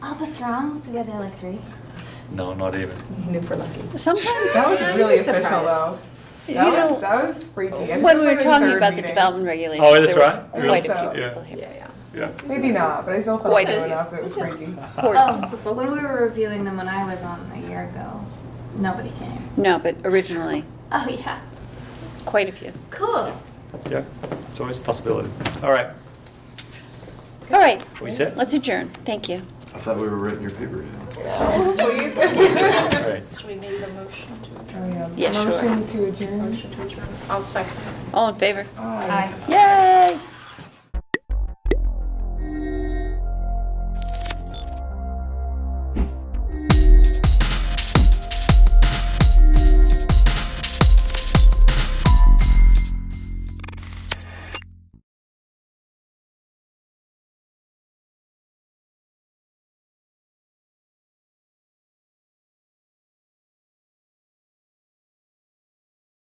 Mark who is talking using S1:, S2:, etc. S1: strong, so yeah, they're like three.
S2: No, not even.
S3: If we're lucky.
S4: Sometimes,
S3: That was
S1: I'm
S3: really official,
S1: surprised.
S3: though.
S4: you
S3: That was,
S4: know,
S3: that was freaky. I think
S4: when
S3: it
S4: we
S3: was
S4: were
S3: like a
S4: talking
S3: third
S4: about the
S3: meeting.
S4: development regulations,
S2: Oh, that's
S4: there were
S2: right.
S4: quite a
S3: So-
S4: few
S2: Yeah.
S4: people here.
S5: Yeah,
S2: Yeah.
S3: Maybe not, but I still felt
S4: Quite a
S3: low
S5: few.
S3: enough. It was freaky.
S4: Hort.
S1: Oh, but when we were reviewing them when I was on a year ago, nobody came.
S4: No, but originally,
S1: Oh, yeah.
S4: quite a few.
S1: Cool.
S2: Yeah. It's always a possibility. All right.
S4: All right,
S2: We set?
S4: let's adjourn. Thank you.
S6: I thought we were writing your paper down.
S3: No, please.
S2: All right.
S5: should we make a motion to
S3: Oh,
S4: Yeah, sure.
S3: Motion to adjourn.
S5: Motion to adjourn. I'll second.
S4: All in favor?
S3: Aye.
S4: Yay!